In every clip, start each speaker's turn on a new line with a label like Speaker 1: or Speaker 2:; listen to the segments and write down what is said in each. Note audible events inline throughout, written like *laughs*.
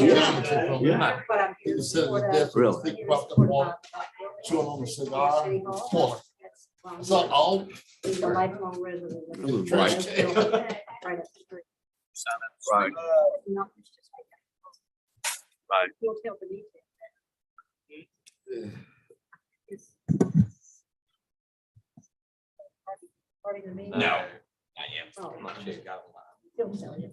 Speaker 1: Yeah.
Speaker 2: But I'm here to
Speaker 1: It says
Speaker 2: support
Speaker 1: the
Speaker 2: us.
Speaker 1: difference.
Speaker 3: Really?
Speaker 1: Think about the walk, chew on a cigar, fork. It's not
Speaker 2: He's
Speaker 1: all.
Speaker 2: a lifelong resident. of
Speaker 3: Really
Speaker 2: Right
Speaker 3: white.
Speaker 2: up the street.
Speaker 4: Right.
Speaker 2: Not just like that.
Speaker 4: Right.
Speaker 2: He'll tell the meeting. It's- Starting the meeting.
Speaker 5: No, I
Speaker 1: Oh.
Speaker 5: am. I'm not sure you got a lot.
Speaker 2: He'll tell you.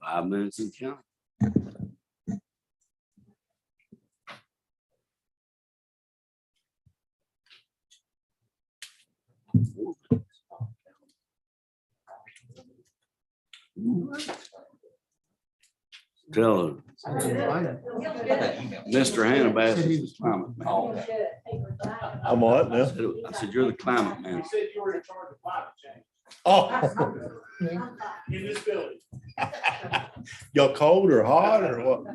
Speaker 3: Five minutes and count. Tell her, Mr. Hannah Bassett is the climate man.
Speaker 5: Oh.
Speaker 6: I'm what
Speaker 3: I
Speaker 6: now?
Speaker 3: said- I said, you're the climate man.
Speaker 7: said you were in charge of climate change
Speaker 6: Oh,
Speaker 7: in this building.
Speaker 6: y'all cold or hot or what?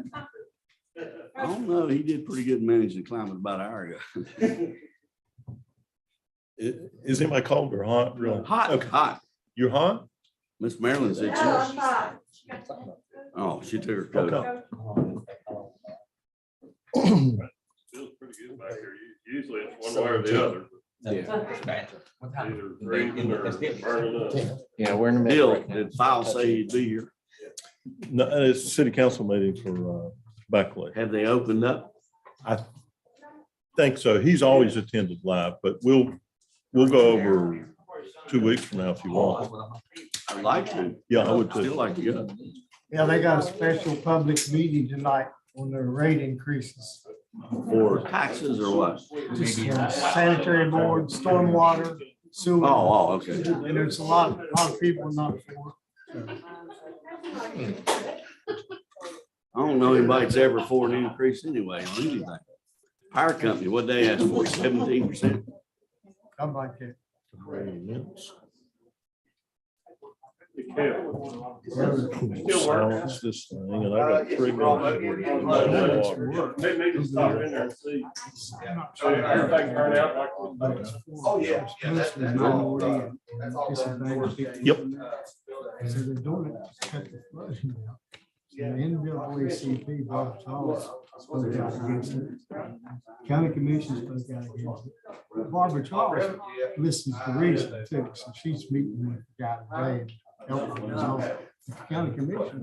Speaker 3: I don't know, he did pretty good managing climate about an hour ago.
Speaker 6: I- Is anybody cold or hot? Really?
Speaker 3: Hot,
Speaker 6: Okay,
Speaker 3: hot.
Speaker 6: you're hot?
Speaker 3: Miss Marilyn said she was. Oh, she took her coat off.
Speaker 6: Okay.
Speaker 8: *laughs* Feels pretty good back here. U- Usually it's one way or the other, either freezing or burning up.
Speaker 5: Yeah, we're in the middle.
Speaker 3: Bill, did file say he'd be here?
Speaker 6: *clears throat* No, it's a city council meeting for uh, Beckley.
Speaker 3: Have they opened up?
Speaker 6: Think so. He's always attended live, but we'll, we'll go over two weeks from now if you want.
Speaker 3: I'd like to.
Speaker 6: Yeah, I would
Speaker 3: Still
Speaker 6: too.
Speaker 3: like to go.
Speaker 9: Yeah, they got a special public meeting tonight on their rate increases.
Speaker 3: For taxes or what?
Speaker 9: Just the Sanitary board, stormwater,
Speaker 3: Oh,
Speaker 9: sewer,
Speaker 3: oh, okay.
Speaker 9: and there's a lot, a lot of people not for
Speaker 3: I don't know anybody's ever for an increase anyway on anything. Power company, what they asked for, seventeen percent?
Speaker 9: it, come like that.
Speaker 8: Still working.
Speaker 6: Silence this thing, and I got three minutes.
Speaker 8: They may just stop in there and see. Sure, Everything turned out like. we-
Speaker 9: Oh, yeah.
Speaker 6: Yep.
Speaker 9: So they're doing it to cut the flooding down. And NAACP Robert's Hall spoke out against it. County Commission spoke out against it. Barbara Charles listens to reason too, so she's meeting with the guy today. and helping resolve it. The County Commission,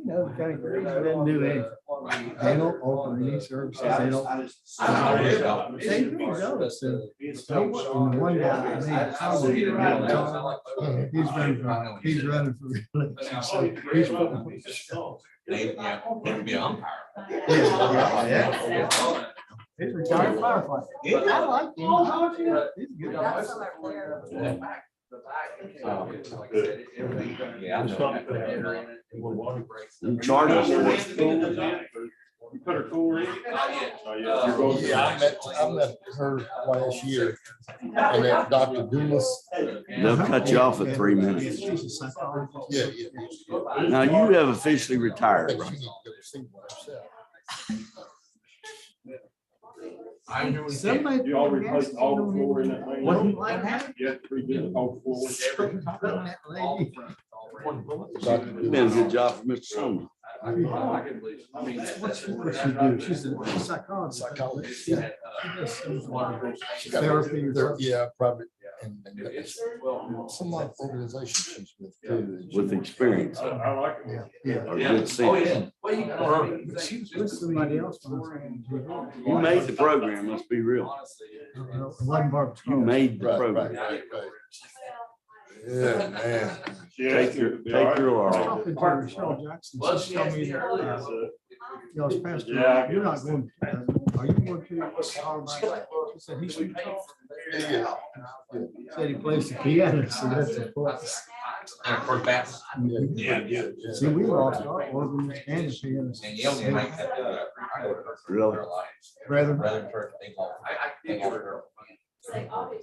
Speaker 9: you know, the county commission doesn't do anything. They don't offer any services. They don't. They do those, so they want- and the one guy, man, Uh, He's running, for- he's running for. election, so he's running for-
Speaker 5: They, yeah, they would be an umpire.
Speaker 9: He's retired firefighter.
Speaker 5: Yeah.
Speaker 9: I like him. I like him. He's good.
Speaker 5: Oh. Yeah. I know.
Speaker 3: Them charges for
Speaker 8: You Put her cooler in. Oh, yeah. You're both-
Speaker 1: Yeah, I met, I met her last year and that Dr. Dumas.
Speaker 3: They'll cut you off at three minutes.
Speaker 9: She's a psychologist.
Speaker 1: Yeah, yeah.
Speaker 3: Now you have officially
Speaker 1: I
Speaker 3: retired,
Speaker 1: think
Speaker 3: bro.
Speaker 1: she needs to go see one herself.
Speaker 9: Somebody.
Speaker 8: You all replaced all the floor in that
Speaker 9: What do you
Speaker 8: lane.
Speaker 9: like happened?
Speaker 8: You have to redo all the floor.
Speaker 9: That lady.
Speaker 1: Dr.
Speaker 3: It's Been a
Speaker 1: Dumas.
Speaker 3: good job for Mr. Sumner.
Speaker 9: What's what she do? She's a psychologist.
Speaker 1: Psychologist, yeah.
Speaker 5: uh,
Speaker 1: She got-
Speaker 9: Therapy.
Speaker 1: there- Yeah, private. and- and it's Some like organization she's with too.
Speaker 3: With experience.
Speaker 8: I I like it.
Speaker 1: Yeah, yeah.
Speaker 3: Or good sense.
Speaker 9: But she was with somebody else. when I was in jail.
Speaker 3: You made the program, let's be real.
Speaker 9: I don't know, It wasn't Barbara
Speaker 3: You
Speaker 9: Charles.
Speaker 3: made the
Speaker 1: Right,
Speaker 3: program.
Speaker 1: right, right. Yeah, man.
Speaker 8: Yeah,
Speaker 3: Take your, take your
Speaker 9: I
Speaker 3: R.
Speaker 9: think to Michelle Jackson, she told me that, uh, y'all's pastor,
Speaker 8: Yeah.
Speaker 9: you're not going, to- are you going to? She said he should talk.
Speaker 1: Yeah.
Speaker 9: Said he plays the piano, so that's a plus.
Speaker 5: And of course, that's,
Speaker 1: Yeah, yeah.
Speaker 9: See, we lost our organ and the pianist.
Speaker 5: and you don't even like that. uh, I would have heard their lives.
Speaker 9: Brother.
Speaker 5: Rather than for- they call- they call her. oh,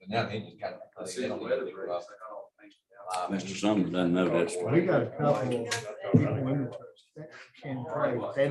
Speaker 5: But now they just got. they don't even do well.
Speaker 1: oh,
Speaker 5: Um,
Speaker 3: Mr. Sumner doesn't know that's right.
Speaker 9: We got a couple people in the church that can pray. They